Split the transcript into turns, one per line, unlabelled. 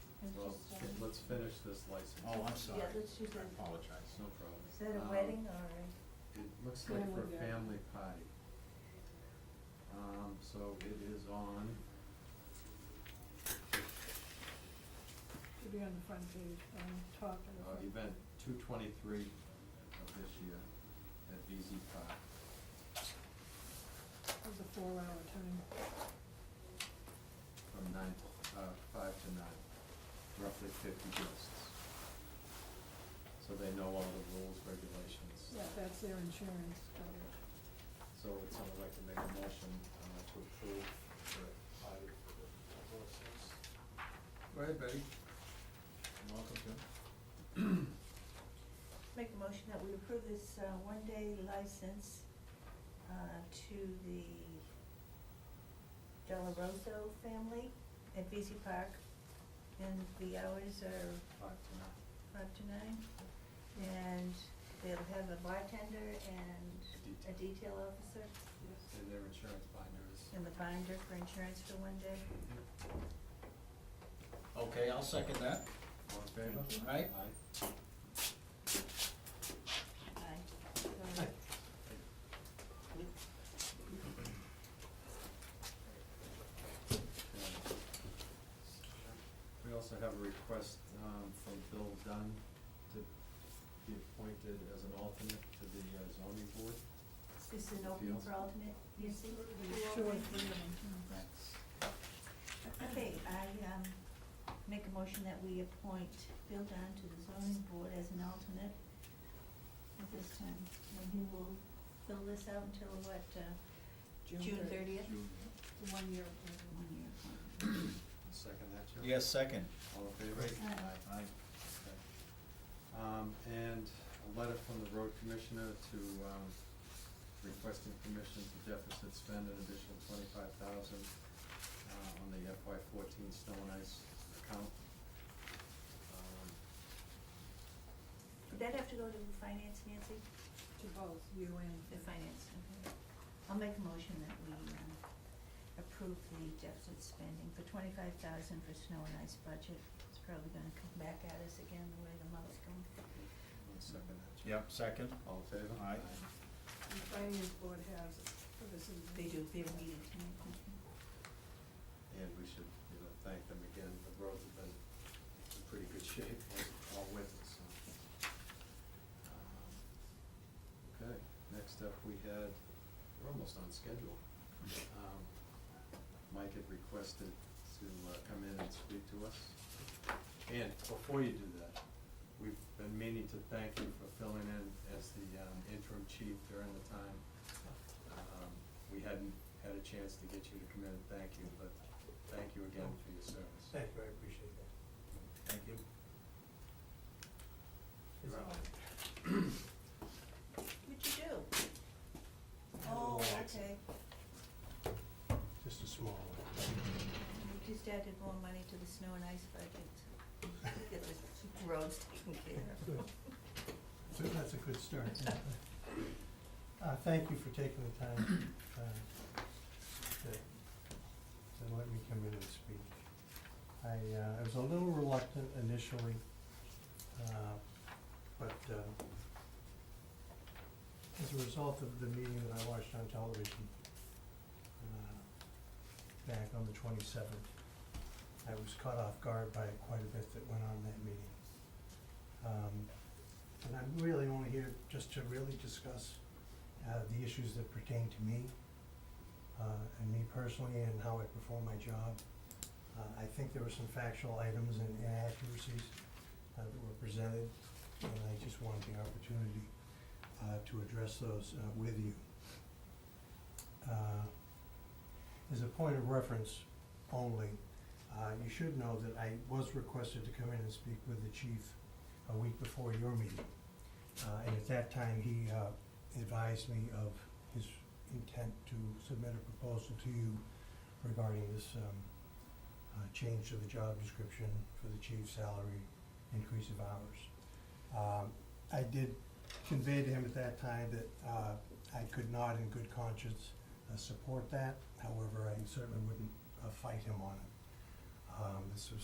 let's finish this license.
Oh, I'm sorry.
um, let's use
I
that.
apologize.
No problem.
Is that a
Um,
wedding or a,
It looks like for
Family
a
gathering.
family party. Um, so it is on, uh,
Should be on the front page, on top of the
uh,
front.
event two twenty-three of this year at VZ Park.
It was a four-hour time.
from nine, uh, five to nine, roughly fifty guests. So they know all the rules, regulations.
Yeah, that's their insurance coverage.
So would someone like to make a motion, uh, to approve the audit for the horses? Go ahead, Betty. You're Welcome, Jim.
make a motion that we approve this, uh, one-day license, uh, to the Delarosa family at VZ Park, and the hours are
Five to nine.
five to nine, and they'll have a bartender and a
Detail.
detail officer,
And their insurance binder is.
and the binder for insurance for one day.
Okay, I'll second that.
All in favor?
Thank you.
Aye.
Aye.
Aye.
So,
We also have a request um, from Bill Dunn to be appointed as an alternate to the uh, zoning board.
Is this an opening for alternate, you see?
there's Two or three of them, hmm.
Okay, I, um, make a motion that we appoint Bill Dunn to the zoning board as an alternate at this time, and he will fill this out until what, uh, June thirtieth?
The one-year appointment.
One year appointment.
Second that, Joe?
Yes, second.
All in favor?
Aye.
Aye.
Okay. Um, and a letter from the road commissioner to, um, requesting permission to deficit spend an additional twenty-five thousand, uh, on the FY fourteen snow and ice account. Um,
Would that have to go to finance, Nancy?
To both you and.
The finance, okay. I'll make a motion that we, um, approve the deficit spending for twenty-five thousand for snow and ice budget. It's probably gonna come back at us again the way the month's going.
I'll second that, Joe.
Yep, second.
All in favor?
Aye.
The finance board has it, so this is.
They do, they have a meeting tonight.
And we should, you know, thank them again, the roads have been in pretty good shape all- all winter, so. Um, Okay, next up, we had, we're almost on schedule. Um, Mike had requested to uh, come in and speak to us. And before you do that, we've been meaning to thank you for filling in as the um, interim chief during the time. Um, We hadn't had a chance to get you to come in and thank you, but thank you again for your service.
Thank you, I appreciate that.
Thank you.
It's
Right.
all-
What'd you do?
had a
Oh,
little
okay.
accident. Just a small one.
You just added more money to the snow and ice budget. Get the roads taken care of.
Good. So that's a good start. Uh, thank you for taking the time, uh, to, to let me come in and speak. I, uh, I was a little reluctant initially, uh, but, uh, as a result of the meeting that I watched on television, uh, back on the twenty-seventh, I was caught off guard by quite a bit that went on in that meeting. Um, and I'm really only here just to really discuss uh, the issues that pertain to me uh, and me personally and how I perform my job. Uh, I think there were some factual items and inaccuracies uh, that were presented, and I just wanted the opportunity uh, to address those uh, with you. Uh, As a point of reference only, uh, you should know that I was requested to come in and speak with the chief a week before your meeting. Uh, And at that time, he uh, advised me of his intent to submit a proposal to you regarding this um, uh, change to the job description for the chief's salary, increase of hours. Um, I did convey to him at that time that uh, I could not in good conscience uh, support that. However, I certainly wouldn't uh, fight him on it. Um, This was